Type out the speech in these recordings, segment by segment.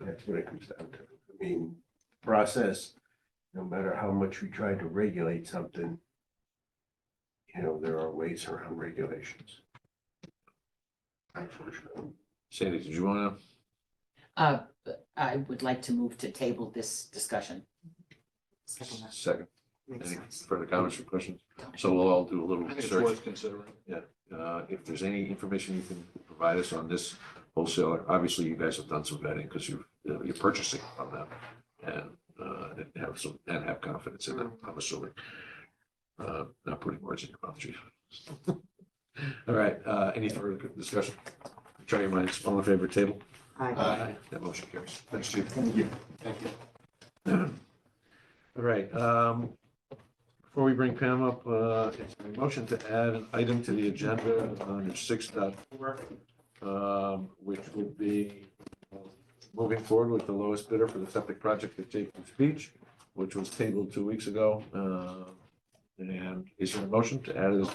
That's what it comes down to. I mean, process, no matter how much we try to regulate something, you know, there are ways around regulations. Unfortunately. Sandy, did you wanna? Uh, I would like to move to table this discussion. Second, Makes any sense. further comments or questions? So we'll all do a little I think it's search. worth considering. Uh, if there's any information you can provide us on this wholesaler, obviously you guys have done some vetting because you, uh, you're purchasing from them. And, uh, and have some, and have confidence in them, I'm assuming. Uh, not putting words in your mouth, chief. All right, uh, any further discussion? Try your minds, all in favor, table? Aye. Aye. That motion carries. Thanks, chief. Thank you. All right, um, before we bring Pam up, uh, it's a motion to add an item to the agenda under six dot four, um, which would be uh, moving forward with the lowest bidder for the septic project at Jacob's Beach, which was tabled two weeks ago. Uh, and is there a motion to add this?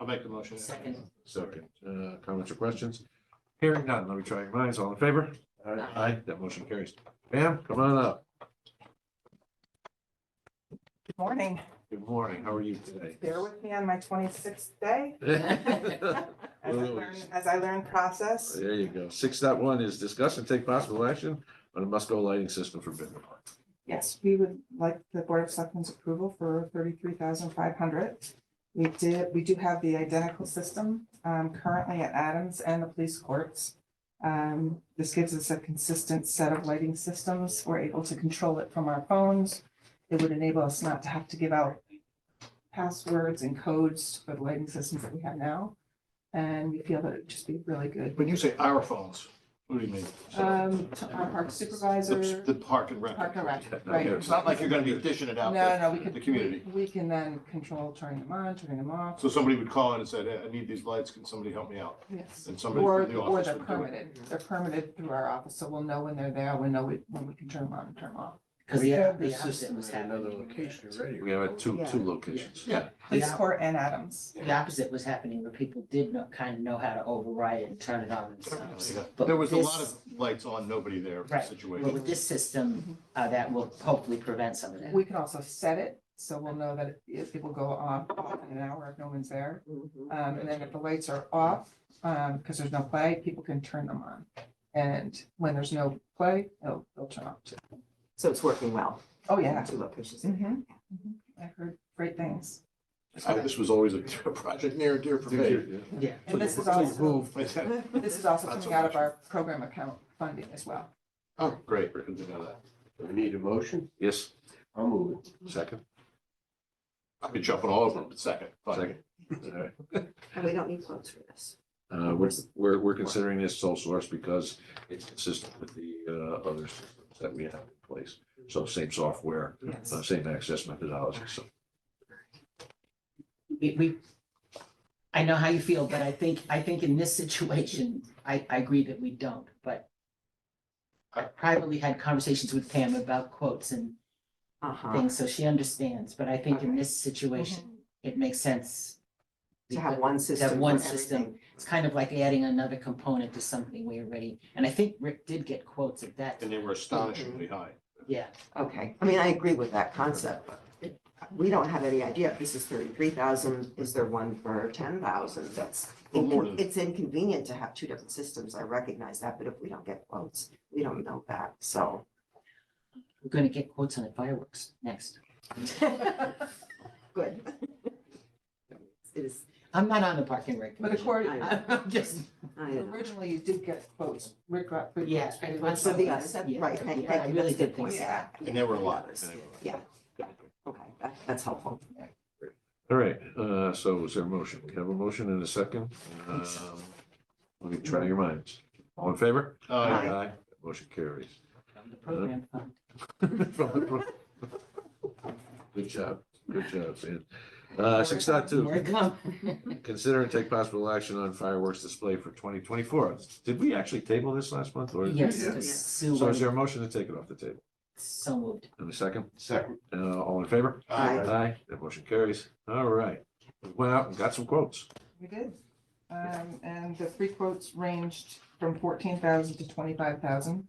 I'll make a motion. Second. Second, uh, comments or questions? Hearing none, let me try your minds, all in favor? Aye. Aye, that motion carries. Pam, come on up. Morning, Good morning, how are you today? bear with me on my twenty-sixth day. As I Well, learn, as I learn process, There you go. Six dot one is discuss and take possible action on a must-go lighting system for Bittner Park. yes, we would like the Board of Selectmen's approval for thirty-three thousand five hundred. We did, we do have the identical system, um, currently at Adams and the police courts. Um, this gives us a consistent set of lighting systems. We're able to control it from our phones. It would enable us not to have to give out passwords and codes for the lighting systems that we have now. And we feel that it'd just be really good When you say our phones, what do you mean? Um, to our park The supervisor, the park and rec. park and rec, Yeah, no, right. yeah. It's not like you're gonna be dishing it No, out no, we to can. the community. We we can then control turning them on, turning them off, So somebody would call in and said, "Hey, I need these lights, can somebody help me out? yes. And somebody Or, from the or office they're would do it. permitted, they're permitted through our office, so we'll know when they're there, we know we- when we can turn them on and turn them off. Because We the, have the this opposite system was at another happening. location already. We have it two, Oh, Yeah. two locations. Yeah. Police Yeah. court and Adams. The opposite was happening where people did know, kind of know how to override it and turn it on themselves. But There was a this- lot of lights on, nobody there Right. But situation. with this system, uh, that will hopefully prevent some of that. We can also set it, so we'll know that if it will go on off in an hour if no one's there. Um, and then if the lights are off, um, because there's no play, people can turn them on. And when there's no play, they'll, they'll turn off too. So it's working well. Oh, yeah. Two locations. Mhm. I heard great things. I- This was always a project near and dear for me. Yeah. And this is Please also, this is also Not so coming out of much. our program account funding as well. Oh, great, good to know that. We need a motion. Yes, I'll move it. second, I'd be jumping all over them in a second, but second. All right. And we don't need quotes for this. Uh, we're, we're, we're considering this sole source because it's consistent with the, uh, other systems that we have in place. So same software, Yes. uh, same access methodology, so. we, we, I know how you feel, but I think, I think in this situation, I, I agree that we don't, but I privately had conversations with Pam about quotes and Uh-huh. things, so she understands, but I think in this situation, it makes sense. Mm-hmm. To have one system. That one for system, it's kind of like adding another component to something we already, and I think Rick did get quotes at that, and they were astonishingly high. yeah. everything. Okay. I mean, I agree with that concept, but it- we don't have any idea if this is thirty-three thousand. Is there one for ten thousand? That's, Well, more than- it's inconvenient to have two different systems. I recognize that, but if we don't get quotes, we don't know that, so. We're gonna get quotes on the fireworks next. Good. It is, I'm not on the parking rec. But according, I- I'm just, I don't know. originally you did get quotes, Rick got. three Yeah, quotes, but I it got was- So the, Yeah, accept- yeah, right, thank, yeah, thank I you. really did That's a good think point. so. Yeah. And they were a lot. Yeah, yeah, okay, that- that's helpful. All right, uh, so is there a motion? We have a motion and a second. Um, Let me try your minds. All in favor? Uh, Aye. Motion carries. from the program fund. From the pro- Good job, good job, Sam. Uh, six dot More to two, come. consider and take possible action on fireworks display for twenty twenty-four. Did we actually table this last month or? Yes, Yeah. because Yeah. Sue So is there was a motion to take it off the table? so moved. And a second, Second. uh, all in favor? Aye. Aye, that motion carries. All right. We Went out and got some quotes. We did. Um, and the three quotes ranged from fourteen thousand to twenty-five thousand.